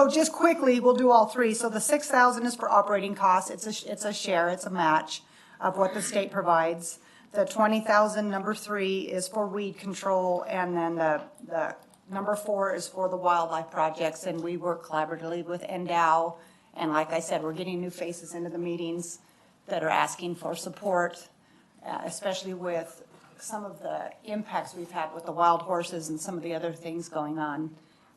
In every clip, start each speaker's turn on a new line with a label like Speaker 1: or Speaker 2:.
Speaker 1: So just quickly, we'll do all three. So the six thousand is for operating costs. It's a, sh- it's a share, it's a match of what the state provides. The twenty thousand, number three, is for weed control, and then the, the number four is for the wildlife projects, and we work collaboratively with Endow. And like I said, we're getting new faces into the meetings that are asking for support, uh, especially with some of the impacts we've had with the wild horses and some of the other things going on.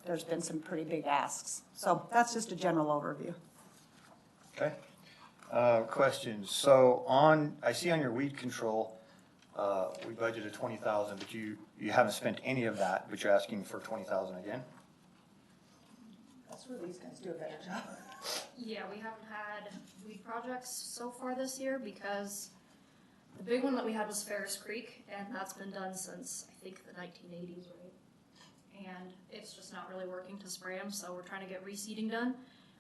Speaker 1: There's been some pretty big asks. So that's just a general overview.
Speaker 2: Okay. Uh, Questions. So on, I see on your weed control, uh, we budgeted 20,000, but you, you haven't spent any of that, but you're asking for 20,000 again?
Speaker 1: That's where these guys do a better job.
Speaker 3: Yeah, we haven't had weed projects so far this year because the big one that we had was Ferris Creek, and that's been done since, I think, the nineteen eighties, right? And it's just not really working to spray them, so we're trying to get reseeding done,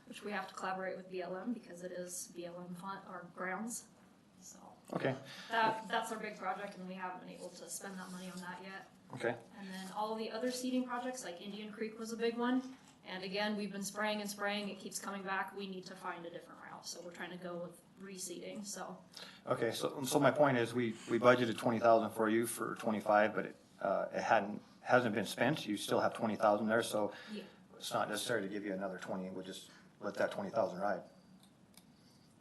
Speaker 3: which we have to collaborate with BLM because it is BLM fun, or grounds. So
Speaker 2: Okay,
Speaker 3: that, that's our big project, and we haven't been able to spend that money on that yet.
Speaker 2: okay,
Speaker 3: And then all the other seeding projects, like Indian Creek was a big one. And again, we've been spraying and spraying, it keeps coming back, we need to find a different route, so we're trying to go with reseeding, so.
Speaker 2: okay. So, so my point is, we, we budgeted 20,000 for you for 25, but it, uh, it hadn't, hasn't been spent. You still have 20,000 there, so
Speaker 3: Yeah.
Speaker 2: it's not necessary to give you another 20. We'll just let that 20,000 ride.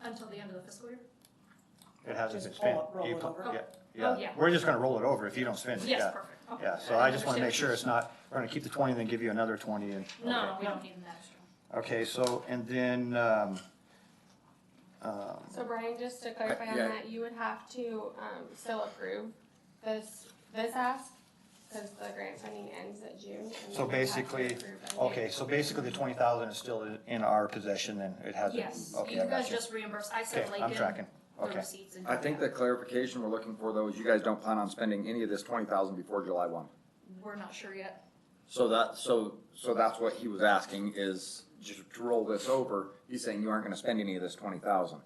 Speaker 3: Until the end of the fiscal year?
Speaker 2: It hasn't been
Speaker 1: Just
Speaker 2: spent.
Speaker 1: roll it- roll
Speaker 2: You
Speaker 1: it
Speaker 2: pu-
Speaker 1: over.
Speaker 2: yeah,
Speaker 3: Oh,
Speaker 2: Yeah,
Speaker 3: yeah.
Speaker 2: we're just gonna roll it over if you don't spend it, yeah.
Speaker 3: Yes, perfect. Okay.
Speaker 2: Yeah, so I just wanna
Speaker 3: understand.
Speaker 2: make sure it's not, we're gonna keep the twenty, then give you another twenty and.
Speaker 3: No, no,
Speaker 2: okay.
Speaker 3: we don't need an extra.
Speaker 2: Okay, so, and then, um, um,
Speaker 4: So Brian, just to clarify on
Speaker 5: yeah.
Speaker 4: that, you would have to, um, still approve this, this ask, cause the grant funding ends at June. and you
Speaker 2: So
Speaker 4: would have to
Speaker 2: basically-
Speaker 4: approve it.
Speaker 2: okay, so basically the twenty thousand is still in- in our possession and it hasn't.
Speaker 3: Yes,
Speaker 2: Okay,
Speaker 3: you
Speaker 2: I
Speaker 3: guys
Speaker 2: got you.
Speaker 3: just reimburse, I
Speaker 2: Okay,
Speaker 3: said
Speaker 2: I'm
Speaker 3: Lincoln,
Speaker 2: tracking,
Speaker 3: the
Speaker 2: okay,
Speaker 3: receipts and.
Speaker 5: I think the clarification we're looking for though is you guys don't plan on spending any of this twenty thousand before July one.
Speaker 3: We're not sure yet,
Speaker 5: So that, so, so that's what he was asking is just to roll this over, he's saying you aren't gonna spend any of this twenty thousand.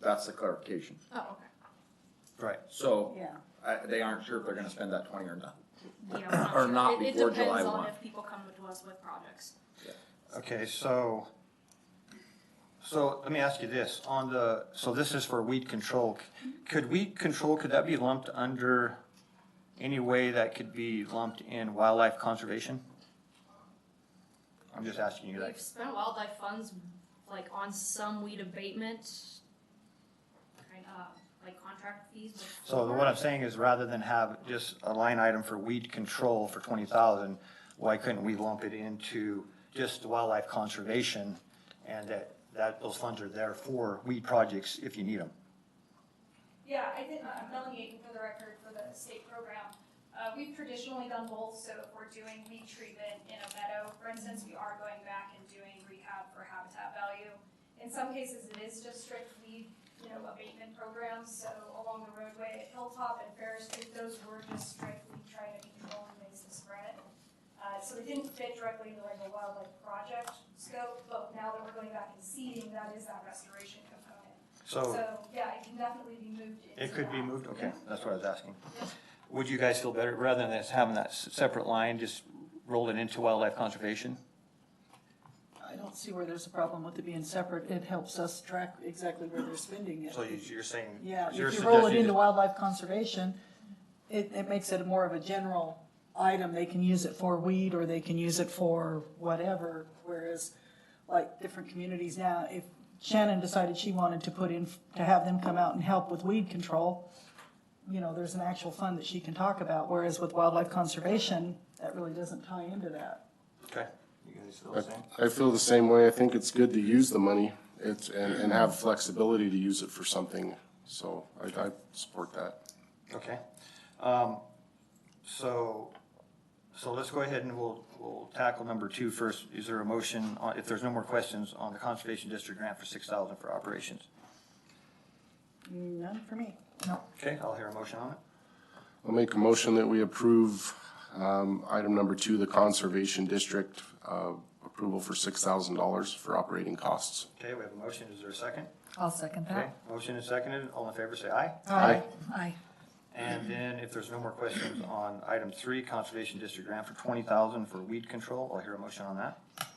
Speaker 5: That's the clarification.
Speaker 3: oh, okay,
Speaker 2: right,
Speaker 5: So,
Speaker 1: Yeah.
Speaker 5: I, they aren't sure if they're gonna spend that twenty or not.
Speaker 3: yeah, we're not
Speaker 5: Or
Speaker 3: sure.
Speaker 5: not
Speaker 3: It-
Speaker 5: before
Speaker 3: It
Speaker 5: July
Speaker 3: depends on
Speaker 5: 1.
Speaker 3: if people come to us with projects.
Speaker 2: okay, so. So let me ask you this, on the, so this is for weed control. C- Could weed control, could that be lumped under any way that could be lumped in wildlife conservation? I'm just asking you that.
Speaker 3: We've spent wildlife funds like on some weed abatement, kind of like contract fees. with
Speaker 2: So
Speaker 3: Clover.
Speaker 2: what I'm saying is rather than have just a line item for weed control for twenty thousand, why couldn't we lump it into just wildlife conservation? And that, that those funds are there for weed projects if you need them.
Speaker 6: Yeah, I think I'm delegating for the record for the state program. Uh, we've traditionally done both, so if we're doing weed treatment in a meadow, for instance, we are going back and doing rehab for habitat value. In some cases, it is just strict weed, you know, abatement programs, so along the roadway at Hilltop and Ferris Street, those were just strict weed trying to control and ways to spread. Uh, so it didn't fit directly into like a wildlife project scope, but now that we're going back and seeding, that is that restoration component.
Speaker 2: So
Speaker 6: yeah, it can definitely be moved into uh,
Speaker 2: it could be
Speaker 6: that.
Speaker 2: moved, okay, that's what I was asking. Would you guys feel better, rather than us having that s- separate line, just roll it into wildlife conservation?
Speaker 7: I don't see where there's a problem with it being separate. It helps us track exactly where they're spending it.
Speaker 2: So you- you're saying.
Speaker 7: Yeah, if
Speaker 2: you're
Speaker 7: you roll it
Speaker 2: suggesting
Speaker 7: into
Speaker 2: that-
Speaker 7: wildlife conservation, it, it makes it more of a general item. They can use it for weed or they can use it for whatever. Whereas like different communities now, if Shannon decided she wanted to put in, to have them come out and help with weed control, you know, there's an actual fund that she can talk about. Whereas with wildlife conservation, that really doesn't tie into that.
Speaker 2: Okay. You guys feel the same?
Speaker 8: I feel the same way. I think it's good to use the money. It's, and, and have flexibility to use it for something. So I, I support that.
Speaker 2: Okay, um, so, so let's go ahead and we'll, we'll tackle number two first. Is there a motion, on- if there's no more questions, on the Conservation District grant for six thousand for operations?
Speaker 7: None for me. No.
Speaker 2: Okay, I'll hear a motion on it.
Speaker 8: I'll make a motion that we approve, um, item number two, the Conservation District, uh, approval for six thousand dollars for operating costs.
Speaker 2: Okay, we have a motion, is there a second?
Speaker 9: I'll second
Speaker 2: Okay,
Speaker 9: that.
Speaker 2: motion is seconded, all in favor say aye.
Speaker 8: Aye.
Speaker 9: Aye.
Speaker 2: And then if there's no more questions on item three, Conservation District grant for twenty thousand for weed control, I'll hear a motion on that.